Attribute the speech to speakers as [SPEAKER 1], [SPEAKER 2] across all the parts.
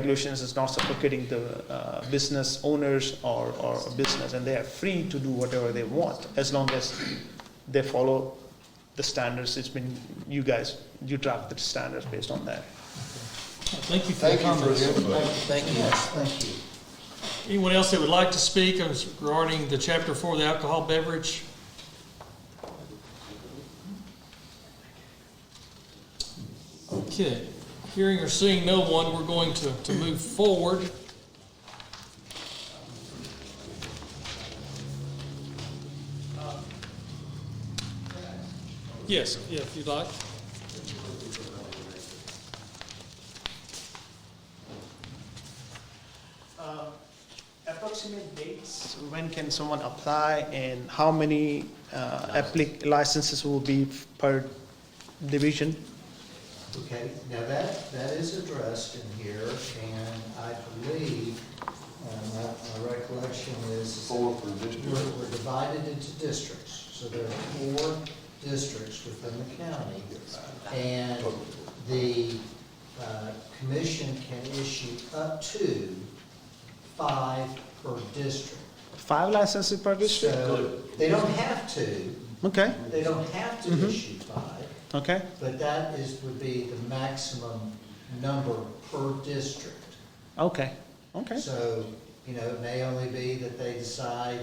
[SPEAKER 1] regulations is not suffocating the uh, business owners or, or business, and they are free to do whatever they want as long as they follow the standards. It's been you guys you draft the standards based on that.
[SPEAKER 2] Thank you for your
[SPEAKER 3] Thank you for
[SPEAKER 2] comments.
[SPEAKER 3] your input.
[SPEAKER 4] Thank you.
[SPEAKER 3] Yes, thank you.
[SPEAKER 2] Anyone else that would like to speak as regarding the chapter four, the alcohol beverage? Okay, hearing or seeing no one, we're going to, to move forward. Yes, yeah, if you'd like.
[SPEAKER 1] Approximate dates, when can someone apply and how many uh, applic- licenses will be per division?
[SPEAKER 3] Okay, now that, that is addressed in here, and I believe, uh, my, my recollection is. Four per district. We're, we're divided into districts, so there are four districts within the county. And the, uh, commission can issue up to five per district.
[SPEAKER 1] Five licenses per district?
[SPEAKER 3] So, they don't have to,
[SPEAKER 1] Okay,
[SPEAKER 3] they don't have to issue five,
[SPEAKER 1] okay,
[SPEAKER 3] but that is, would be the maximum number per district.
[SPEAKER 1] okay, okay.
[SPEAKER 3] So, you know, it may only be that they decide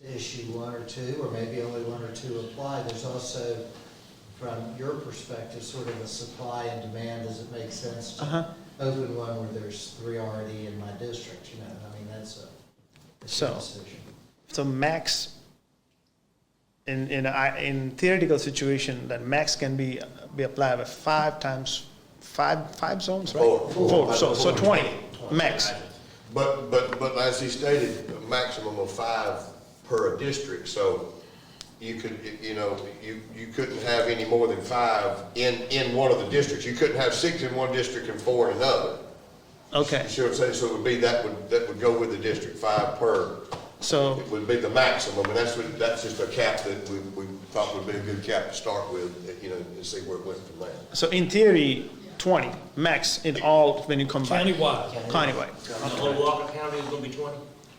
[SPEAKER 3] to issue one or two, or maybe only one or two apply. There's also, from your perspective, sort of a supply and demand, does it make sense
[SPEAKER 1] Uh-huh.
[SPEAKER 3] to open one where there's three already in my district, you know, I mean, that's a, it's
[SPEAKER 1] So-
[SPEAKER 3] a decision.
[SPEAKER 1] So max, in in I in theoretical situation, that max can be be applied with five times five five zones, right?
[SPEAKER 5] Four.
[SPEAKER 1] Four. So so twenty max.
[SPEAKER 5] But, but, but as he stated, a maximum of five per district, so you could, you know, you, you couldn't have any more than five in, in one of the districts. You couldn't have six in one district and four in another.
[SPEAKER 1] Okay.
[SPEAKER 5] You see what I'm saying? So it would be, that would, that would go with the district, five per.
[SPEAKER 1] So
[SPEAKER 5] It would be the maximum, and that's what, that's just a cap that we, we thought would be a good cap to start with, you know, and see where it went from there.
[SPEAKER 1] so in theory, twenty max in all when you combine
[SPEAKER 2] Countywide,
[SPEAKER 1] countywide,
[SPEAKER 4] The whole Walker County is gonna be twenty?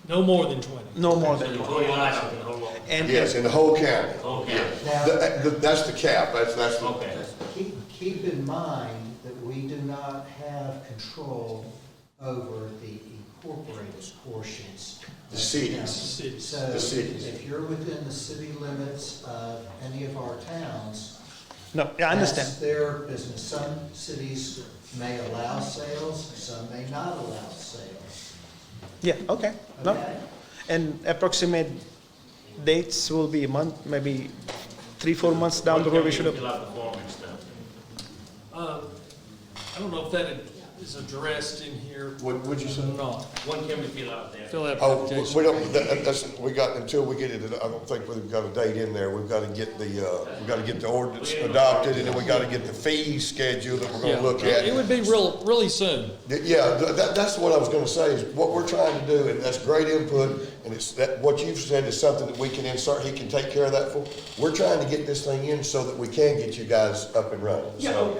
[SPEAKER 2] no more than twenty.
[SPEAKER 1] no more
[SPEAKER 4] The
[SPEAKER 1] than
[SPEAKER 4] whole license, the whole Walker.
[SPEAKER 1] and
[SPEAKER 5] Yes, in the whole county.
[SPEAKER 4] Whole county.
[SPEAKER 5] Yeah. That- that- That's the cap, that's, that's. the-
[SPEAKER 4] Okay.
[SPEAKER 3] Keep, keep in mind that we do not have control over the incorporated portions.
[SPEAKER 5] The cities.
[SPEAKER 2] Cities.
[SPEAKER 3] So
[SPEAKER 5] The cities.
[SPEAKER 3] if you're within the city limits of any of our towns.
[SPEAKER 1] no, I understand.
[SPEAKER 3] That's their business. Some cities may allow sales, some may not allow sales.
[SPEAKER 1] Yeah, okay. No,
[SPEAKER 3] Okay?
[SPEAKER 1] and approximate dates will be a month, maybe three four months down the road. We should have.
[SPEAKER 4] Fill out the form and stuff.
[SPEAKER 2] Um, I don't know if that is addressed in here.
[SPEAKER 5] What- what'd you say?
[SPEAKER 2] Or not.
[SPEAKER 4] When can we fill out that?
[SPEAKER 2] Fill that
[SPEAKER 5] Oh,
[SPEAKER 2] application.
[SPEAKER 5] we don't, that- that- that's, we got, until we get it, I don't think we've got a date in there, we've gotta get the, uh, we gotta get the ordinance adopted, and then we gotta get the fee schedule that we're
[SPEAKER 2] Yeah.
[SPEAKER 5] gonna look
[SPEAKER 2] It
[SPEAKER 5] at.
[SPEAKER 2] would be real, really soon.
[SPEAKER 5] Th- Yeah, th- that, that's what I was gonna say, is what we're trying to do, and that's great input, and it's, that, what you've said is something that we can insert, he can take care of that for. We're trying to get this thing in so that we can get you guys up and running, so.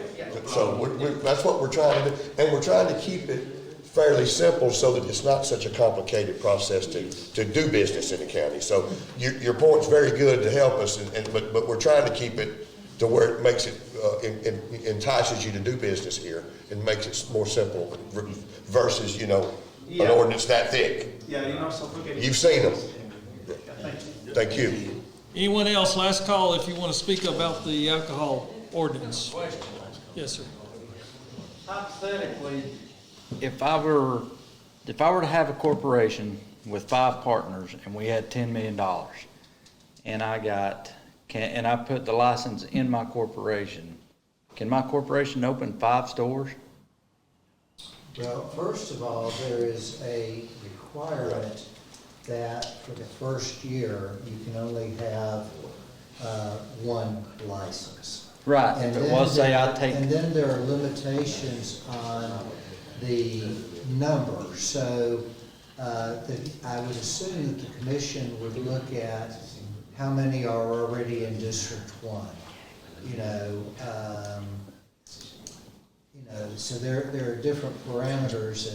[SPEAKER 5] So, we're, we're, that's what we're trying to do, and we're trying to keep it fairly simple so that it's not such a complicated process to, to do business in the county. So your, your point's very good to help us, and, and, but, but we're trying to keep it to where it makes it, uh, en- en- entices you to do business here and makes it more simple versus, you know, an
[SPEAKER 1] Yeah.
[SPEAKER 5] ordinance that thick.
[SPEAKER 1] Yeah, you're not suffocating.
[SPEAKER 5] You've seen them. Thank you.
[SPEAKER 2] Anyone else, last call if you want to speak about the alcohol ordinance. Yes, sir.
[SPEAKER 6] Hypothetically, if I were, if I were to have a corporation with five partners and we had ten million dollars, and I got, can, and I put the license in my corporation, can my corporation open five stores?
[SPEAKER 3] Well, first of all, there is a requirement that for the first year, you can only have uh, one license.
[SPEAKER 6] Right, if
[SPEAKER 3] And
[SPEAKER 6] it
[SPEAKER 3] then
[SPEAKER 6] was, say I
[SPEAKER 3] there- And
[SPEAKER 6] take,
[SPEAKER 3] then there are limitations on the number, so, uh, the, I would assume that the commission would look at how many are already in District One, you know, um, you know, so there, there are different parameters